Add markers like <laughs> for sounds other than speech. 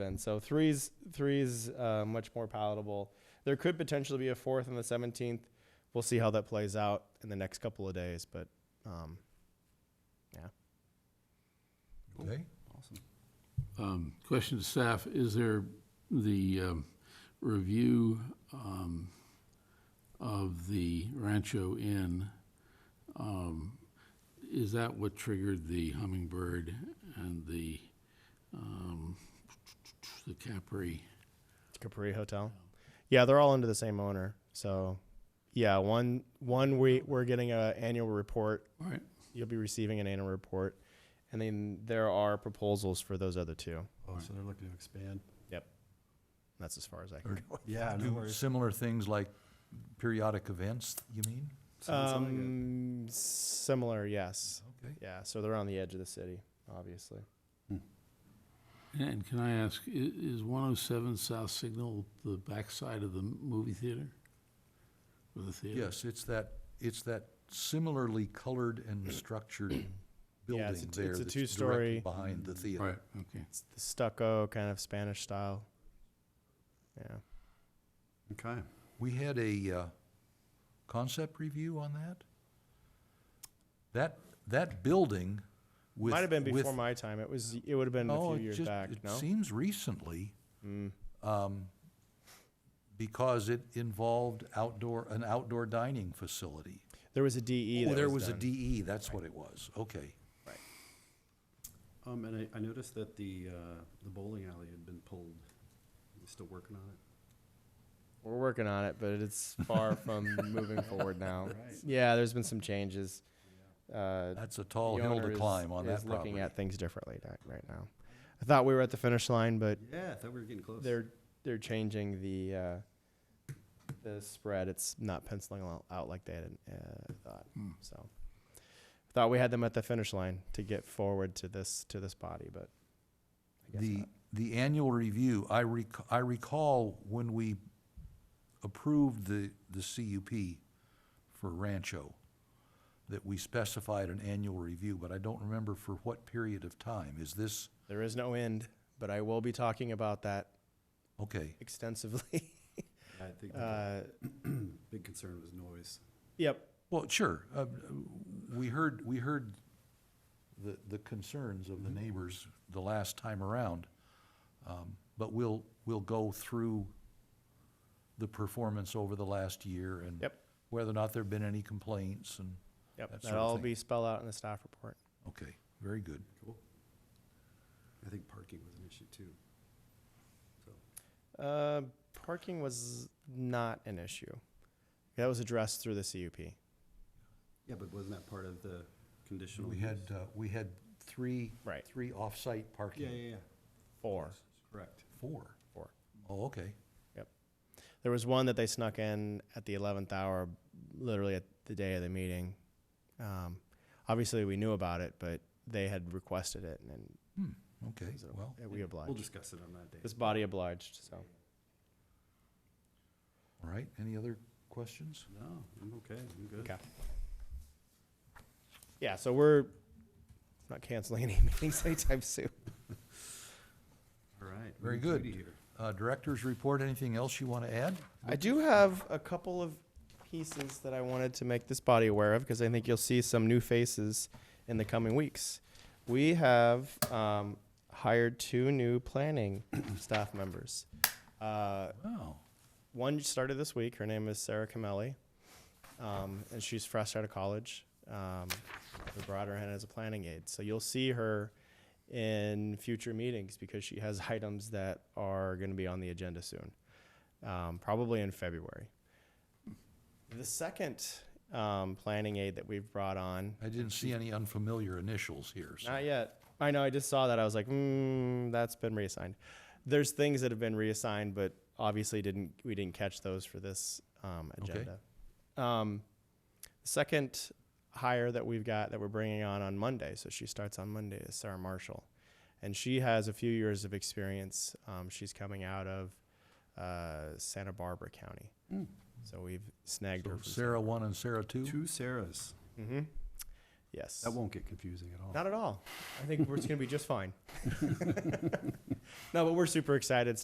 then. So three's three's uh, much more palatable. There could potentially be a fourth on the 17th. We'll see how that plays out in the next couple of days, but um, yeah. Okay, Um, Question to staff, is there the um, review um, of the Rancho Inn, um, is that what triggered the Hummingbird and the, um, the Capri? Capri Hotel. Yeah, they're all under the same owner. So, yeah, one one we we're getting a annual report. All right, You'll be receiving an annual report, and then there are proposals for those other two. Oh, so they're looking to expand. Yep, that's as far as I can. <laughs> Or go. Yeah, no do worries. similar things like periodic events, you mean? Sounds like it. Um, similar, yes. Okay. Yeah, so they're on the edge of the city, obviously. and can I ask, i- is 107 South Signal the backside of the movie theater? Or the theater? Yes, it's that, it's that similarly colored <clears throat> and structured Yeah, it's a building t- there it's a that's two-story- Mm-hmm. directly behind the theater. Right, okay. It's the stucco kind of Spanish style. Yeah. Okay. We had a, uh, concept review on that? That, that building with. Might have been with- before my time. It was. It would have been No, a it few years just- back. It no. Mm. seems recently, um, because it involved outdoor, an outdoor dining facility. there was a DE. Oh, E that there was a done. DE, that's what it was, okay. Um, and I, I noticed that the, uh, the bowling alley had been pulled. You're Still working on it? We're working on it, but <laughs> it's far from moving forward now. Right. Yeah, there's been some changes. Uh, That's a tall the hill owner to is- climb on is that looking property. at things differently right, right now. I thought we were at the finish line, but Yeah, I thought we were getting close. they're they're changing the uh, the spread. It's not penciling al- out like they had uh, thought. Hmm. So thought we had them at the finish line to get forward to this to this body, but I guess The, not. the annual review, I rec, I recall when we approved the, the CUP for Rancho, that we specified an annual review, but I don't remember for what period of time. Is this, there is no end. But I will be talking about that <laughs> okay, extensively. I think the uh, big concern was noise. yep. well, sure. uh, We heard, we heard the, the concerns of the Mm-hmm. neighbors the last time around. um, But we'll, we'll go through the performance over the last year and Yep. whether or not there've been any complaints and, Yep, that sort of that'll all thing. be spelled out in the staff report. okay, very good. Cool. I think parking was an issue too. So, Uh, parking was not an issue. That was addressed through the CUP. yeah, but wasn't that part of the conditional? We had, uh, we had three, Right. three off-site Yeah, parking. yeah, yeah, Four. correct. Four. Four. Oh, okay. There was one that they snuck in at the eleventh hour, literally at the day of the meeting. Um, obviously, we knew about it, but they had requested it, and Hmm, okay, was it- well, uh, we We'll obliged. discuss it on that day. This body obliged, so. all right. Any other questions? No, I'm okay, I'm good. Okay. Yeah, so we're not canceling any <laughs> meetings anytime soon. All right. Very Lee good. Judy here. Uh, Directors report, anything else you want to add? I do have a couple of pieces that I wanted to make this body aware of because I think you'll see some new faces in the coming weeks. We have um, hired two new planning staff members. Uh, Wow, one started this week. Her name is Sarah Camelli, um, and she's fresh out of college. Um, we brought her in as a planning aide, so you'll see her in future meetings because she has <laughs> items that are going to be on the agenda soon, um, probably in February. The second um, planning aide that we've brought on, I didn't see any unfamiliar initials here, so. not yet. I know. I just saw that. I was like, hmm, that's been reassigned. There's things that have been reassigned, but obviously didn't we didn't catch those for this um, Okay. agenda. Um, second hire that we've got that we're bringing on on Monday, so she starts on Monday is Sarah Marshall, and she has a few years of experience. Um, she's coming out of uh, Santa Barbara County, so we've snagged her. Hmm. So From Sarah one and Sarah two? Two Sarahs. Mm-hmm. Yes. That won't get confusing at all. Not at all. I think we're- it's going to be just fine. <laughs> no, but we're super excited.